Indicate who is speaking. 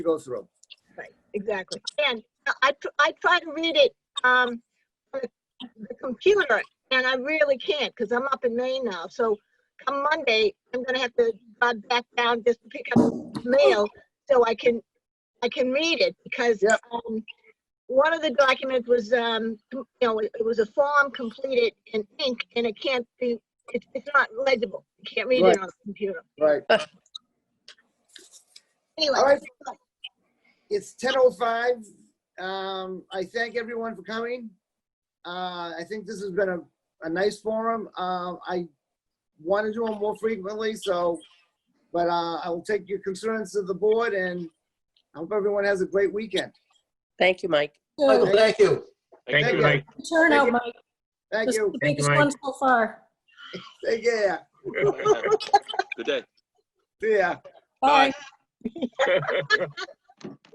Speaker 1: to go through.
Speaker 2: exactly.
Speaker 3: And I, tr- I try to read it, um, on the computer, and I really can't, because I'm up in Maine now, so come Monday, I'm gonna have to drive back down just to pick up mail, so I can, I can read it, because,
Speaker 1: Yep.
Speaker 3: um, one of the documents was, um, you know, it it was a form completed in ink, and it can't be, it's, it's not legible, you can't read
Speaker 1: Right.
Speaker 3: it on the computer.
Speaker 1: Right. All
Speaker 3: Anyway,
Speaker 1: right. It's ten oh five. Um, I thank everyone for coming. Uh, I think this has been a, a nice forum. Um, I want to do them more frequently, so, but, uh, I will take your concerns to the board and I hope everyone has a great weekend.
Speaker 4: Thank you, Mike.
Speaker 1: Michael,
Speaker 5: Good.
Speaker 1: thank you.
Speaker 5: Thank
Speaker 1: Thank
Speaker 5: you,
Speaker 1: you.
Speaker 5: Mike.
Speaker 1: Thank
Speaker 5: Turnout,
Speaker 1: you.
Speaker 5: Mike.
Speaker 1: Thank
Speaker 5: This is
Speaker 1: you.
Speaker 5: the
Speaker 6: Thank you,
Speaker 5: biggest
Speaker 6: Mike.
Speaker 5: one so far.
Speaker 1: Take care.
Speaker 6: Good day.
Speaker 1: See ya.
Speaker 5: Bye.